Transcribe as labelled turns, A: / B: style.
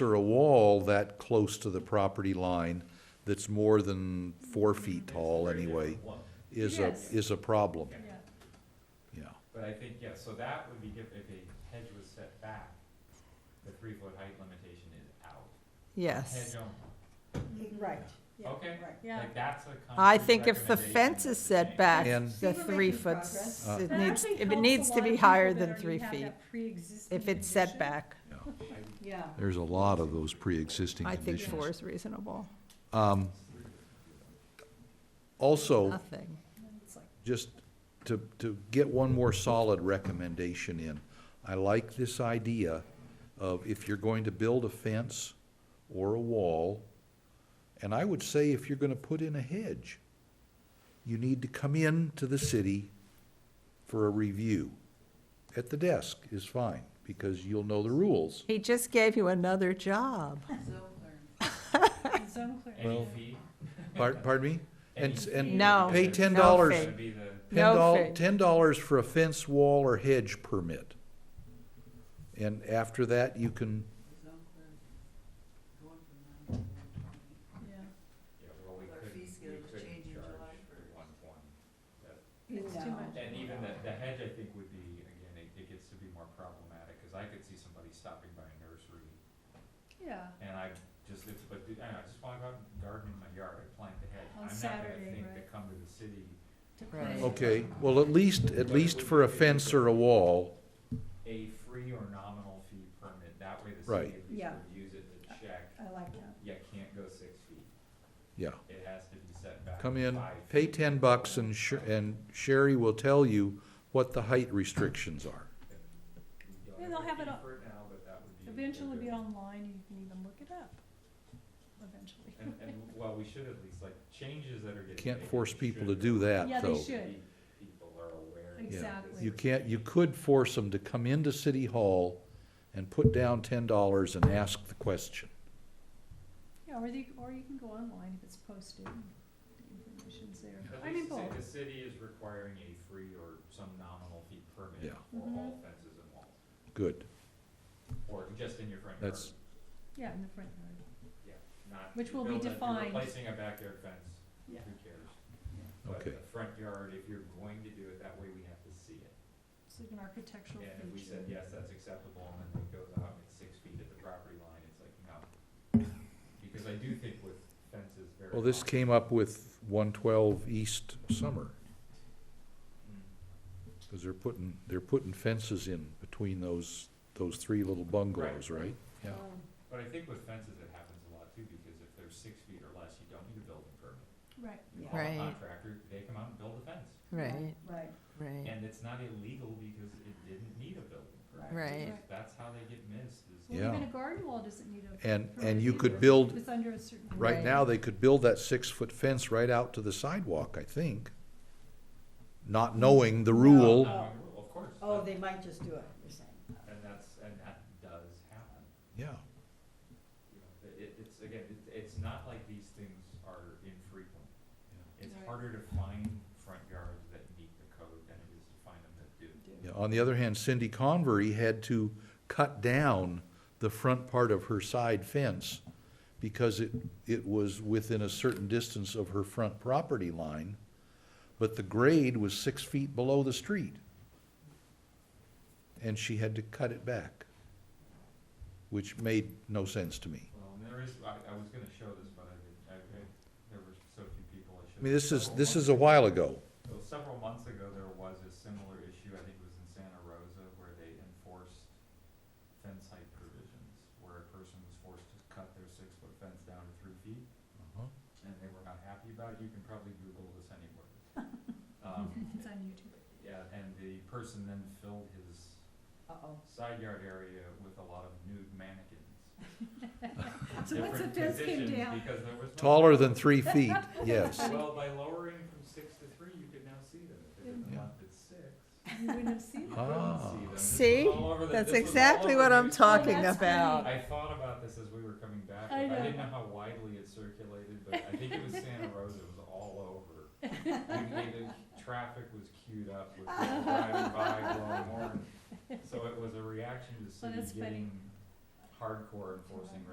A: or a wall that close to the property line that's more than four feet tall anyway is a,
B: Yes.
A: is a problem. Yeah,
C: But I think, yeah, so that would be given, if a hedge was set back, the three foot height limitation is out. Hedge
D: Yes.
C: only,
E: Right.
C: okay?
B: Yeah.
C: Like that's a
D: I
C: concrete
D: think if the
C: recommendation
D: fence
C: that
D: is
C: we
D: set
C: make.
D: back,
A: And-
E: See, we're
D: the
E: making
D: three foot,
E: progress.
A: Uh,
D: it
B: That
D: needs,
B: actually
D: if it
B: helps
D: needs
B: a
D: to
B: lot
D: be
B: of
D: higher
B: people that
D: than three
B: already have
D: feet.
B: that pre-existing
D: If it's set
B: condition.
D: back,
E: Yeah.
A: there's a lot of those pre-existing
D: I think
A: conditions.
D: four is reasonable.
A: Um, Also,
D: Nothing.
E: It's like-
A: just to, to get one more solid recommendation in, I like this idea of if you're going to build a fence or a wall, and I would say if you're gonna put in a hedge, you need to come in to the city for a review. At the desk is fine, because you'll know the rules.
D: He just gave you another job.
B: It's unclear.
C: Any fee?
A: Par- Pardon me?
C: Any
A: And,
C: fee
A: and
D: No,
A: pay
C: is
A: ten
D: no
A: dollars.
D: fee.
C: gonna be the-
A: Ten
D: No
A: dollars,
D: fee.
A: ten dollars for a fence wall or hedge permit. And after that, you can,
C: yeah, well, we
F: Our
C: couldn't-
F: fee schedule
C: we
F: was
C: couldn't
F: changing
C: charge
F: July first.
C: one point.
B: It's too
E: No.
B: much.
C: And even the, the hedge, I think, would be, again, it, it gets to be more problematic, cause I could see somebody stopping by a nursery
B: Yeah,
C: And I just, it's, but, I don't know, I just wanna go out and garden in my yard, I plant the hedge.
B: On
C: I'm not
B: Saturday,
C: gonna think to
B: right.
C: come to the city,
B: to
D: Right.
B: put-
A: okay, well, at least, at least for a fence or a wall,
C: a free or nominal fee permit, that way the
A: Right.
C: city at least
E: Yeah.
C: reviews it
B: Uh,
C: to check.
E: I like that.
C: Yeah, it can't go six feet,
A: yeah.
C: it has to be set back
A: Come in,
C: five
A: pay
C: feet.
A: ten bucks and eh. Sh- and Sherry will tell you what the height restrictions are.
C: We don't
B: Yeah, they'll
C: a
B: have
C: fee
B: it on-
C: for it now, but that would be a
B: Eventually
C: good-
B: be online, you can even look it up, eventually.
C: And, and, well, we should at least, like, changes that are getting.
A: Can't
C: made,
A: force
C: we
A: people to
C: should-
A: do that,
B: Yeah, they
A: though.
B: should.
C: People are aware. that
B: Exactly.
C: this
A: You
C: is-
A: can't, you could force them to come into City Hall and put down ten dollars and ask the question.
B: Yeah, or they, or you can go online if it's posted, and the information's there.
C: At
B: I mean,
C: least
B: both.
C: the- the city is requiring a free or some nominal fee permit
A: Yeah.
C: for all
B: Mhm.
C: fences and walls,
A: Good,
C: or just in your front yard.
A: that's,
B: yeah, in the front yard.
C: Yeah, not.
B: Which
C: you
B: will be
C: build a- you're
B: defined.
C: Replacing a backyard fence, who
B: Yeah.
C: cares? But
A: Okay.
C: the front yard, if you're going to do it that way, we have to see it.
B: It's like an architectural
C: And if we
B: feature.
C: said, yes, that's acceptable, and then it goes out and it's six feet at the property line, it's like, no. Because I do think with fences very.
A: well, this
C: often-
A: came up with one twelve East Summer.
C: Mm.
A: Because they're putting, they're putting fences in between those, those three little bungalows, right? Yeah.
E: Oh,
C: But I think with fences, it happens a lot too, because if they're six feet or less, you don't need a building permit.
B: Right,
C: You
E: Yeah.
C: call a
D: Right.
C: contractor, they come out and build the fence.
D: Right,
E: Right.
D: right.
C: And it's not illegal because it didn't need a building permit.
D: Right.
C: It's- That's how they get missed is.
B: well,
A: Yeah.
B: even a garden wall doesn't need a.
A: And,
B: permit
A: and you
B: either,
A: could build,
B: if It's under a certain.
A: right now, they could build that six-foot fence right out to the sidewalk, I think. Not knowing the
C: Not
A: rule,
C: knowing the rule, Of course.
E: Oh,
C: that-
E: they might just do it, you're saying.
C: And that's, and that does happen.
A: yeah,
C: You know, it- It, it's, again, it, it's not like these things are infrequent. It's
B: Right.
C: harder to find front yards that meet the code than it is to find them that do.
A: yeah. On the other hand, Cindy Convery had to cut down the front part of her side fence because it, it was within a certain distance of her front property line, but the grade was six feet below the street. And she had to cut it back, which made no sense to me.
C: Well, and there is, I, I was gonna show this, but I didn't, I, I, there were so few people I should.
A: I mean, this is, this is a while ago.
C: So several months ago, there was a similar issue, I think it was in Santa Rosa, where they enforced fence height provisions, where a person was forced to cut their six-foot fence down to three feet, and they were not happy about it, you can probably Google this anywhere. Um,
B: It's on YouTube.
C: yeah, and the person then filled his
E: Uh-oh.
C: side yard area with a lot of nude mannequins.
B: So once the
C: Different
B: fence came
C: positions,
B: down.
C: Because there was. no-
A: Taller than three feet, yes.
C: Well, by lowering from six to three, you could now see them, if they didn't
A: Yeah.
C: want at six.
B: You wouldn't have seen it.
A: Ah,
D: See? That's exactly what I'm talking
B: That's great.
D: about.
C: I thought about this as we were coming back. but
B: I
C: I, didn't
B: know.
C: know how widely it circulated, but I think it was Santa Rosa. It was all over. You- you- the traffic was queued up with people driving by blowing horns. So it was a reaction to the city
B: Well, that's funny.
C: getting hardcore enforcing